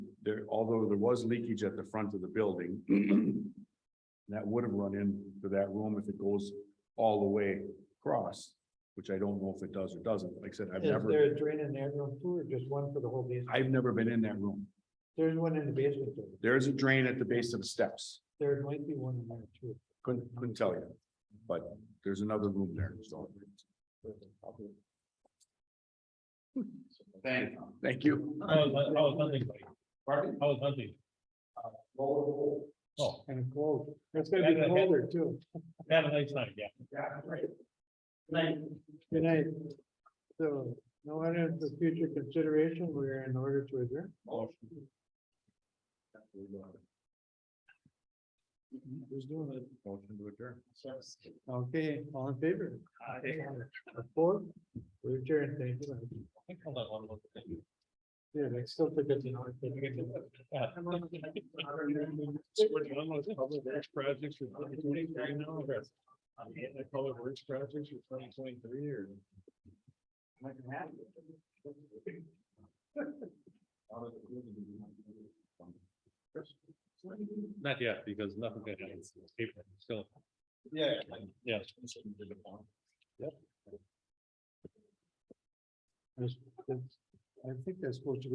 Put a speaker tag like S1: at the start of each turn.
S1: there, although there was leakage at the front of the building, that would have run into that room if it goes all the way across, which I don't know if it does or doesn't. Like I said, I've
S2: Is there
S1: never,
S2: a drain in that room too, or just one for the whole basement?
S1: I've never been in that room.
S2: There's one in the basement, too.
S1: There is a drain at the base of the steps.
S2: there might be one in there too.
S1: Couldn't, couldn't tell you, but there's another room there, so. Thank, thank you.
S3: I was, I was hunting. Pardon? I was hunting. Oh,
S2: Kind of cold. It's gonna be colder too.
S3: had a nice night, yeah.
S2: Good night. So, no one has the future consideration, we're in order to adjourn.
S3: Who's doing it?
S1: Motion to adjourn.
S2: Okay, all in favor? Four, we adjourn, thank you.
S3: I think I'll let one look.
S2: Yeah, they still forget the hour.
S3: Yeah. Which one was it? Public works projects for 2023 now, or that's- I mean, the public works projects for twenty twenty-three or? Not yet, because nothing. Still. Yeah. Yeah.
S2: I think that's supposed to go